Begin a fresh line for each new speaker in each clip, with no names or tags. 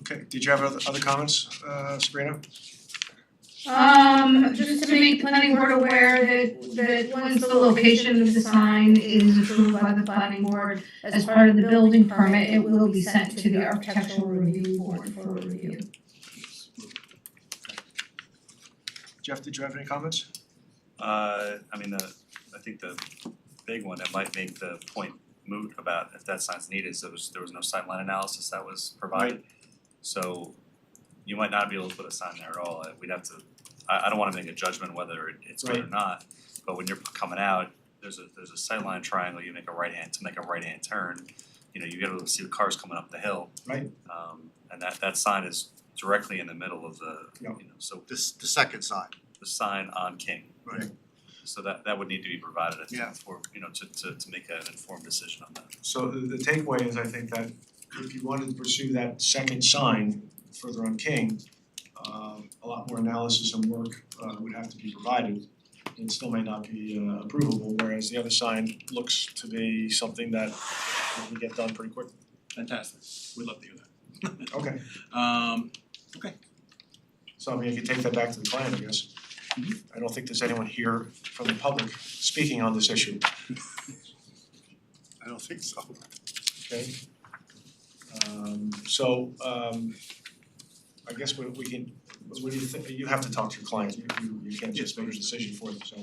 Okay, did you have other other comments, uh Sabrina?
Um, just to make the planning board aware that, that once the location of the sign is approved by the planning board as part of the building permit, it will be sent to the architectural review board for review.
Jeff, did you have any comments?
Uh, I mean, the, I think the big one that might make the point moot about if that sign's needed, is there was, there was no sign line analysis that was provided. So you might not be able to put a sign there at all, Uh, we'd have to, I I don't wanna make a judgment whether it- it's good or not, but when you're coming out, there's a, there's a sight line triangle, you make a right hand, to make a right hand turn, you know, you gotta see the cars coming up the hill.
Right.
Um, and that, that sign is directly in the middle of the, you
Yeah.
know, so
This, the second sign.
the sign on King.
Right.
So that that would need to be provided, I
Yeah.
think, for, you know, to to to make an informed decision on that.
So the the takeaway is I think that if you wanted to pursue that second sign further on King, um a lot more analysis and work uh would have to be provided. It still may not be uh approvable, whereas the other sign looks to be something that we can get done pretty quick.
Fantastic, we'd love to hear that.
Okay,
Um,
so I mean, you could take that back to the client, I guess. I don't think there's anyone here from the public speaking on this issue.
I don't think so.
Okay. Um so um I guess we we can, what do you think, you have to talk to your client, you you you can't just make a decision for them, so.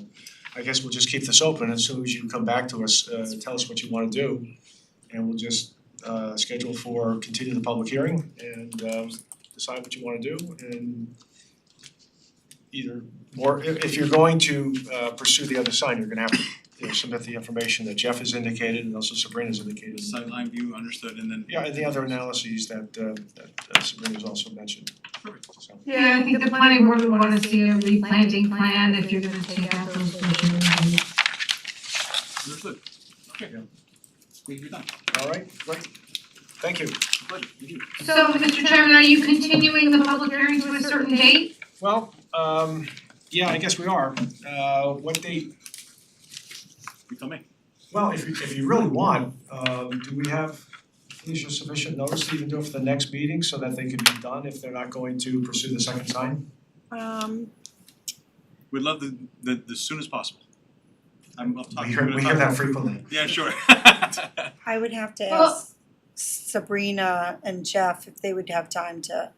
I guess we'll just keep this open, as soon as you come back to us, uh tell us what you wanna do. And we'll just uh schedule for, continue the public hearing and um decide what you wanna do and either, or if if you're going to uh pursue the other sign, you're gonna have to, you know, submit the information that Jeff has indicated and also Sabrina's indicated.
sideline view understood and then.
Yeah, and the other analyses that uh that uh, Sabrina's also mentioned,
Perfect.
so.
Yeah, I think the planning board would wanna see a replanting plan if you're gonna take out those bushes.
Understood. Okay.
Yeah.
We've done,
All right, great, thank you.
pleasure, thank you.
So, Mr. Chairman, are you continuing the public hearing to a certain date?
Well, um yeah, I guess we are. Uh what date,
You tell me.
well, if you if you really want, um do we have issue sufficient notice to even do it for the next meeting so that they can be done if they're not going to pursue the second sign?
Um,
We'd love the the the soonest possible. I'm I'll talk
We
to you.
hear we hear that frequently.
Yeah, sure.
I would have to
Well-
ask Sabrina and Jeff if they would have time to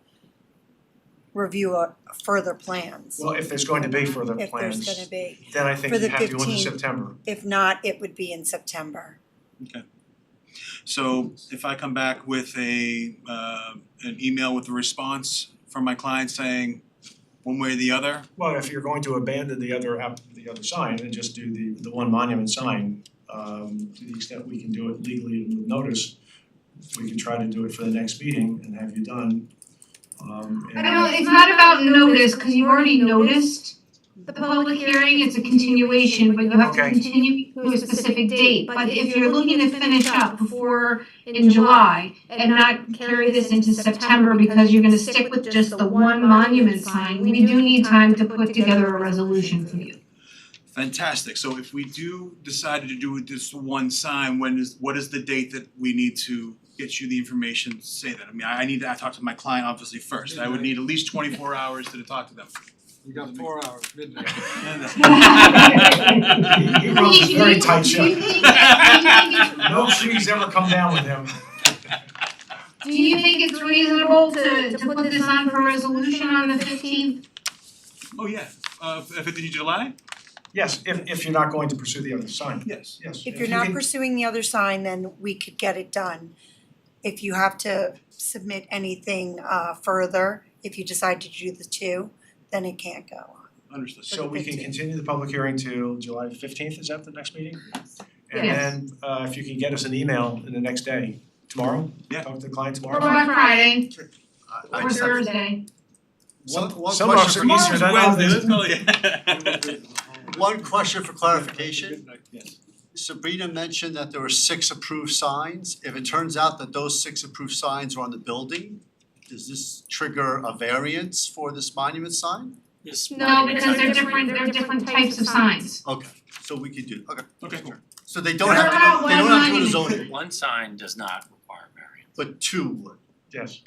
review a further plans,
Well, if there's going to be further
if there's
plans,
gonna be.
then I think
For
you
the
have to go into
15.
September.
If not, it would be in September.
So if I come back with a uh an email with a response from my client saying one way or the other,
Well, if you're going to abandon the other app, the other sign and just do the the one monument sign, um to the extent we can do it legally and with notice, we can try to do it for the next meeting and have you done. Um
I
and
don't know, it's not about notice, cause you already noticed the public hearing, it's a continuation, but you have to
Okay.
continue to a specific date. But if you're looking to finish up before in July and not carry this into September because you're gonna stick with just the one monument sign, we do need time to put together a resolution for you.
fantastic. So if we do decide to do this one sign, when is what is the date that we need to get you the information to say that? I mean, I I need to I talk to my client obviously first. I would need at least twenty four hours to talk to them.
You got four hours, midnight.
He he runs a very tight ship. No trees ever come down with him.
Do you think it's reasonable to, to put this on for resolution on the fifteenth?
Oh, yeah, uh fifteen July?
Yes, if if you're not going to pursue the other sign,
Yes.
yes.
If you're not
you can-
pursuing the other sign, then we could get it done. If you have to submit anything uh further, if you decide to do the two, then it can't go on.
Understood.
So we can
15th.
continue the public hearing till July fifteenth, is that the next meeting? And
Yes.
then uh if you can get us an email in the next day, tomorrow,
Yeah.
talk to the client tomorrow.
Or on Friday,
I
or Thursday?
One one
Some
question
of
for
us are Oh, easier than others.
one question for clarification.
Midnight.
Sabrina mentioned that there were six approved signs. If it turns out that those six approved signs are on the building, does this trigger a variance for this monument sign?
No, because they're different, they're different types of signs.
Okay, so we could do, okay.
Okay, cool.
So they don't
They're
have to,
not
go- they don't have to go to
one
zoning,
One sign does not require variance.
but two would.
Yes.